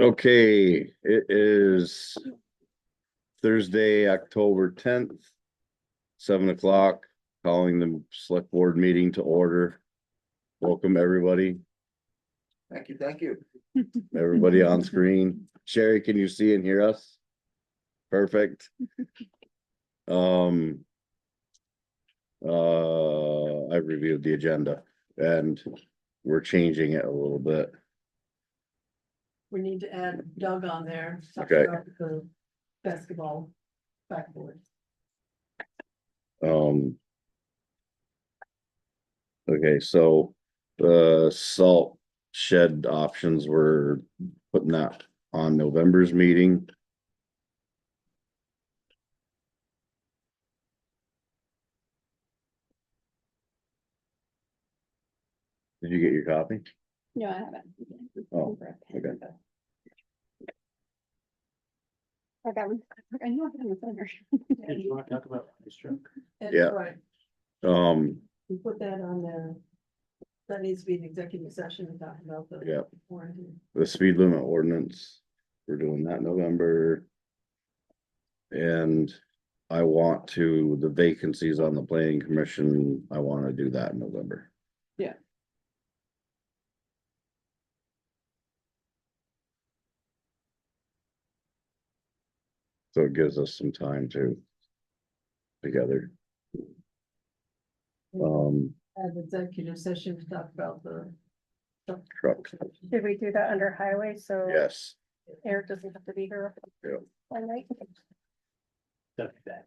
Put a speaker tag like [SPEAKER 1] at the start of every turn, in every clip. [SPEAKER 1] Okay, it is Thursday, October tenth, seven o'clock, calling the select board meeting to order. Welcome, everybody,
[SPEAKER 2] Thank you, thank you.
[SPEAKER 1] everybody on screen. Sherry, can you see and hear us? Perfect. Um. Uh, I've reviewed the agenda and we're changing it a little bit.
[SPEAKER 3] We need to add Doug on there. talk
[SPEAKER 1] Okay.
[SPEAKER 3] about The basketball backboard.
[SPEAKER 1] Um. Okay, so the salt shed options were putting that on November's meeting. Did you get your copy?
[SPEAKER 4] No, I haven't.
[SPEAKER 1] Oh,
[SPEAKER 4] For a pen, but- I got one. I know I have a thunder.
[SPEAKER 5] Did you wanna talk about this truck?
[SPEAKER 3] And,
[SPEAKER 1] Yeah.
[SPEAKER 3] Right,
[SPEAKER 1] Um,
[SPEAKER 3] we put that on there. That needs to be an executive session and talk about the.
[SPEAKER 1] Yeah.
[SPEAKER 3] Warranty.
[SPEAKER 1] the speed limit ordinance, we're doing that November. And I want to, the vacancies on the planning commission, I wanna do that in November.
[SPEAKER 3] Yeah.
[SPEAKER 1] So it gives us some time to together, um,
[SPEAKER 3] Add executive session to talk about the.
[SPEAKER 1] truck,
[SPEAKER 4] Did we do that under highway? So
[SPEAKER 1] yes,
[SPEAKER 4] Eric doesn't have to be here.
[SPEAKER 1] Yep.
[SPEAKER 4] By night?
[SPEAKER 5] Stuff like that.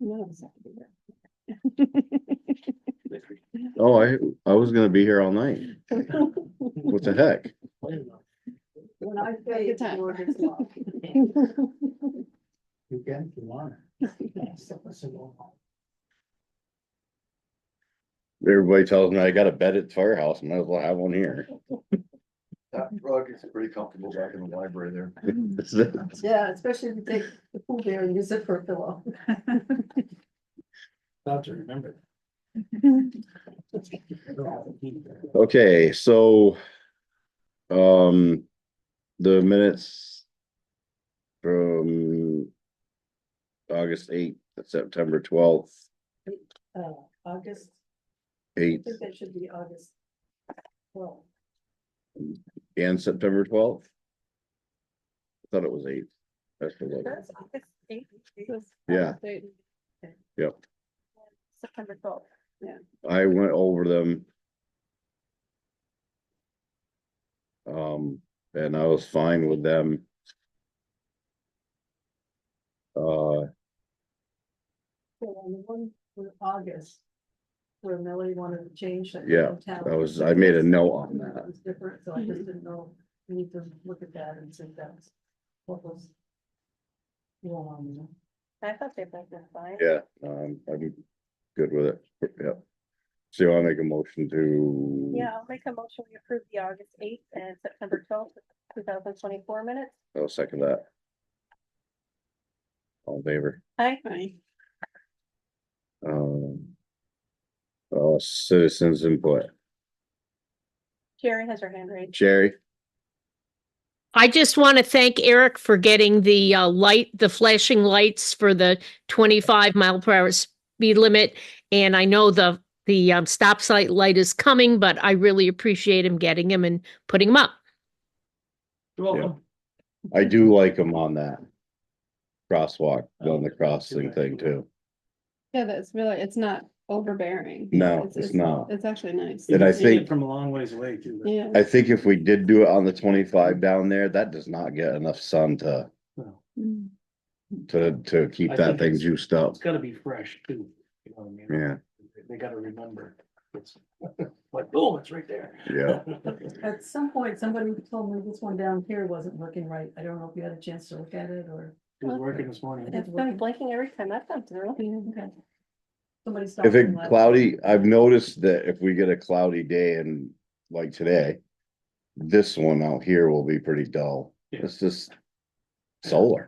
[SPEAKER 4] None of us have to be here.
[SPEAKER 1] oh, I, I was gonna be here all night, what the heck?
[SPEAKER 3] When I
[SPEAKER 4] Good
[SPEAKER 3] say it's
[SPEAKER 4] time.
[SPEAKER 3] George's law.
[SPEAKER 5] You can, if you wanna.
[SPEAKER 1] Everybody tells me I got a bed at the firehouse, might as well have one here.
[SPEAKER 2] That rug is pretty comfortable back in the library there.
[SPEAKER 3] Yeah, especially if you take the pool there and use it for a pillow.
[SPEAKER 5] Thought to remember.
[SPEAKER 1] Okay, so. Um, the minutes. From. August eighth, September twelfth,
[SPEAKER 3] Uh, August, I
[SPEAKER 1] eighth
[SPEAKER 3] think that should be August. Well,
[SPEAKER 1] and September twelfth. I Thought it was eighth. That's the one. Yeah. Yep.
[SPEAKER 4] September twelfth.
[SPEAKER 1] I went over them. Um, and I was fine with them. Uh,
[SPEAKER 3] so on the one for August. Where Melody wanted to change. that
[SPEAKER 1] Yeah,
[SPEAKER 3] town.
[SPEAKER 1] I was, I made a note on
[SPEAKER 3] Something that
[SPEAKER 1] that.
[SPEAKER 3] was different, so I just didn't know, we need to look at that and see if that's what was. wrong. you know.
[SPEAKER 4] I thought they both were fine.
[SPEAKER 1] Yeah, um, I'm good with it. Yep. So I make a motion to.
[SPEAKER 4] Yeah, I'll make a motion. We approve the August eighth and September twelfth, two thousand twenty-four minutes.
[SPEAKER 1] I'll second that. All in favor,
[SPEAKER 4] Hi.
[SPEAKER 1] um. Uh, citizens input.
[SPEAKER 4] Sherry has her hand raised.
[SPEAKER 1] Jerry,
[SPEAKER 6] I just want to thank Eric for getting the uh, light, the flashing lights for the 25 mile per hour speed limit. And I know the, the um, stop sign light is coming, but I really appreciate him getting him and putting him up.
[SPEAKER 5] Well,
[SPEAKER 1] I do like him on that. Crosswalk, on the crossing thing too.
[SPEAKER 7] Yeah, that's really, it's not overbearing.
[SPEAKER 1] No, it's not.
[SPEAKER 7] It's actually nice.
[SPEAKER 1] And I think-
[SPEAKER 5] From a long ways away too. but-
[SPEAKER 7] Yeah.
[SPEAKER 1] I think if we did do it on the twenty-five down there, that does not get enough sun to,
[SPEAKER 5] Well,
[SPEAKER 7] Mm.
[SPEAKER 1] to, to keep
[SPEAKER 5] I
[SPEAKER 1] that
[SPEAKER 5] think
[SPEAKER 1] thing
[SPEAKER 5] it's-
[SPEAKER 1] juiced up.
[SPEAKER 2] Oh.
[SPEAKER 5] It's gotta be fresh too, you know what I mean?
[SPEAKER 1] Yeah,
[SPEAKER 5] They gotta remember. It's like, boom, it's right there.
[SPEAKER 1] yeah.
[SPEAKER 3] At some point, somebody told me this one down here wasn't working right. I don't know if you had a chance to look at it or.
[SPEAKER 5] He was working this morning.
[SPEAKER 4] It's been blinking every time I've come through.
[SPEAKER 3] Okay. Somebody stopped.
[SPEAKER 1] If it
[SPEAKER 3] and left.
[SPEAKER 1] cloudy, I've noticed that if we get a cloudy day and like today. This one out here will be pretty dull.
[SPEAKER 5] Yeah.
[SPEAKER 1] It's just solar.